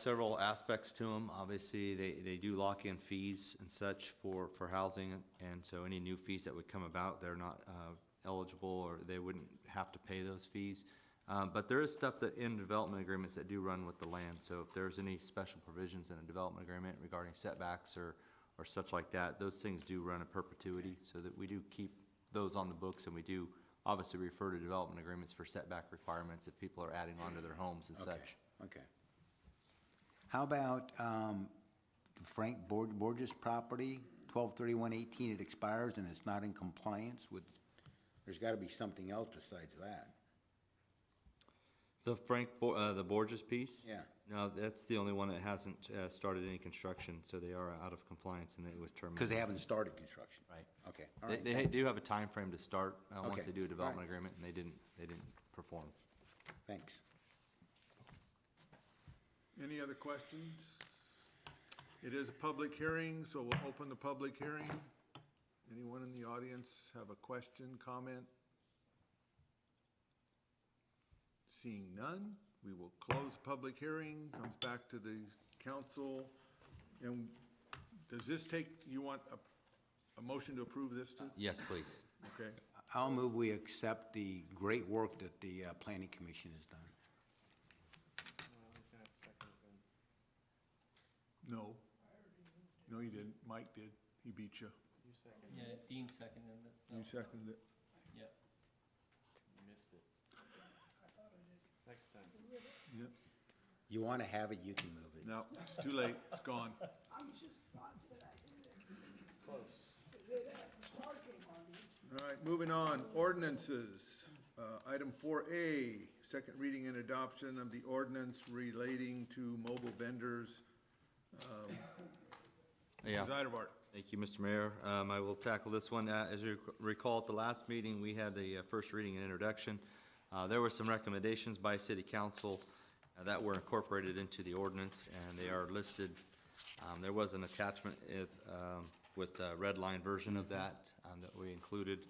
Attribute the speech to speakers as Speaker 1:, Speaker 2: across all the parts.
Speaker 1: several aspects to them. Obviously, they, they do lock in fees and such for, for housing, and so any new fees that would come about, they're not uh, eligible, or they wouldn't have to pay those fees. Um, But there is stuff that in development agreements that do run with the land, so if there's any special provisions in a development agreement regarding setbacks or, or such like that, those things do run in perpetuity, so that we do keep those on the books, and we do obviously refer to development agreements for setback requirements if people are adding onto their homes and
Speaker 2: Okay,
Speaker 1: such.
Speaker 2: Okay. How about um, Frank Bor- Borges property, 123118, it expires and it's not in compliance with, there's got to be something else besides that.
Speaker 1: The Frank, Bo- uh, the Borges piece?
Speaker 2: Yeah.
Speaker 1: No, that's the only one that hasn't, uh, started any construction, so they are out of compliance and it was
Speaker 2: Because
Speaker 1: terminated.
Speaker 2: they haven't started construction.
Speaker 1: Right.
Speaker 2: Okay, all
Speaker 1: They,
Speaker 2: right.
Speaker 1: they do have a time frame to start, uh, once
Speaker 2: Okay,
Speaker 1: they do a
Speaker 2: all
Speaker 1: development
Speaker 2: right.
Speaker 1: agreement, and they didn't, they didn't perform.
Speaker 2: Thanks.
Speaker 3: Any other questions? It is a public hearing, so we'll open the public hearing. Anyone in the audience have a question, comment? Seeing none, we will close public hearing, comes back to the council. And does this take, you want a, a motion to approve this too?
Speaker 1: Yes, please.
Speaker 3: Okay,
Speaker 2: I'll move we accept the great work that the uh, planning commission has done.
Speaker 3: no. No, you didn't. Mike did. He beat you.
Speaker 4: Yeah, Dean seconded it.
Speaker 3: You seconded it.
Speaker 4: Yeah.
Speaker 5: Missed it. Next time.
Speaker 3: Yep.
Speaker 2: You want to have it, you can move it.
Speaker 3: No, it's too late. It's gone.
Speaker 6: I just thought that I had it. Close. the star came on me.
Speaker 3: All right, moving on, ordinances. Uh, Item 4A, second reading and adoption of the ordinance relating to mobile vendors.
Speaker 1: Yeah.
Speaker 3: Zeiderbark.
Speaker 1: Thank you, Mr. Mayor. Um, I will tackle this one. Uh, As you recall, at the last meeting, we had the uh, first reading and introduction. Uh, There were some recommendations by city council uh, that were incorporated into the ordinance, and they are listed. Um, There was an attachment if, um, with the red line version of that um, that we included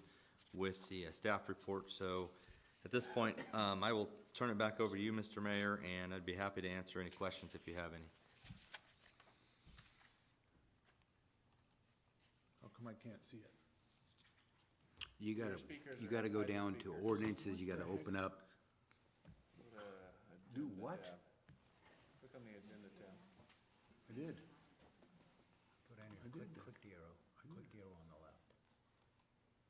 Speaker 1: with the uh, staff report. So at this point, um, I will turn it back over to you, Mr. Mayor, and I'd be happy to answer any questions if you have any.
Speaker 3: How come I can't see it?
Speaker 2: You got to,
Speaker 5: Your speakers
Speaker 2: you
Speaker 5: are
Speaker 2: got to go
Speaker 5: not your
Speaker 2: down to
Speaker 5: speakers.
Speaker 2: ordinances, you got to open up.
Speaker 5: Go to uh, agenda
Speaker 3: Do what?
Speaker 5: tab. Click on the agenda tab.
Speaker 3: I did.
Speaker 2: Put on your, click, click the arrow, click the arrow on the left.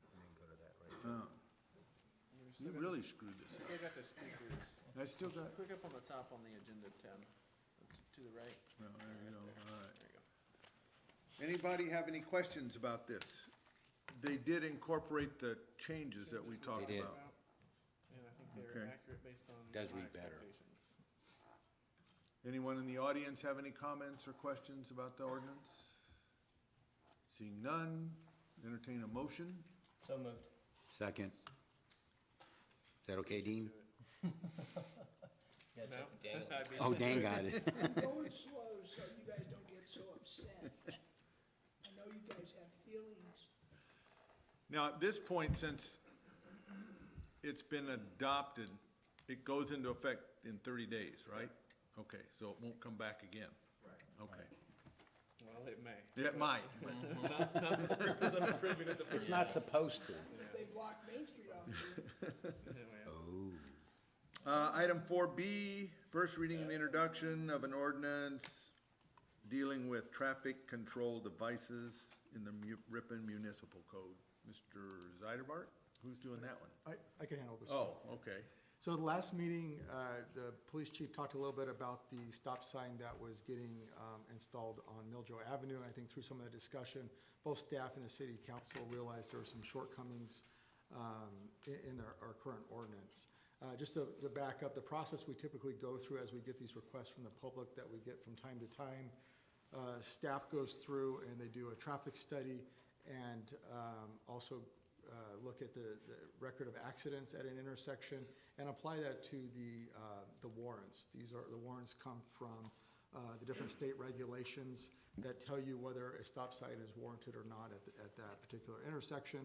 Speaker 2: And then go to that right.
Speaker 3: Oh,
Speaker 5: You're
Speaker 3: You
Speaker 5: still got
Speaker 3: really
Speaker 5: the-
Speaker 3: screwed this
Speaker 5: Still got the speakers.
Speaker 3: up. I still got,
Speaker 5: Click up on the top on the agenda tab, It's to the right.
Speaker 3: no, Oh, there you go, all right.
Speaker 5: There you go.
Speaker 3: Anybody have any questions about this? They did incorporate the changes that we talked
Speaker 2: did.
Speaker 3: about.
Speaker 5: And I think
Speaker 3: Okay.
Speaker 5: they're accurate based on my
Speaker 2: Does read better.
Speaker 5: expectations.
Speaker 3: Anyone in the audience have any comments or questions about the ordinance? Seeing none, entertain a motion.
Speaker 4: So moved.
Speaker 2: Second. Is that okay, Dean?
Speaker 4: Yeah,
Speaker 5: No?
Speaker 4: dang it.
Speaker 5: I'd be-
Speaker 2: Oh, Dan got it.
Speaker 6: I'm going slow so you guys don't get so upset. I know you guys have feelings.
Speaker 3: Now, at this point, since it's been adopted, it goes into effect in thirty days, right? Okay, so it won't come back again? Right. Okay.
Speaker 5: Well, it may.
Speaker 3: It might, but
Speaker 5: Because I'm approving it the first
Speaker 2: It's not supposed to.
Speaker 6: If they block Main Street off, you
Speaker 5: anyway.
Speaker 3: Uh, Item four B, first reading and introduction of an ordinance dealing with traffic control devices in the Mu- Ripon Municipal Code. Mr. Zeiderbart, who's doing that one?
Speaker 7: I, I can handle this. one.
Speaker 3: Oh, okay.
Speaker 7: So the last meeting, uh, the police chief talked a little bit about the stop sign that was getting um, installed on Milljoe Avenue. I think through some of the discussion, both staff and the city council realized there were some shortcomings um, i- in our our current ordinance. Uh, Just to to back up, the process we typically go through as we get these requests from the public that we get from time to time, uh, staff goes through and they do a traffic study and um, also uh, look at the, the record of accidents at an intersection and apply that to the, uh, the warrants. These are, the warrants come from uh, the different state regulations that tell you whether a stop sign is warranted or not at, the- at that particular intersection.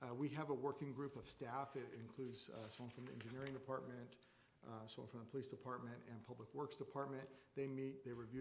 Speaker 7: Uh, We have a working group of staff. It includes uh, someone from the engineering department, uh, so from the police department and public works department. They meet, they review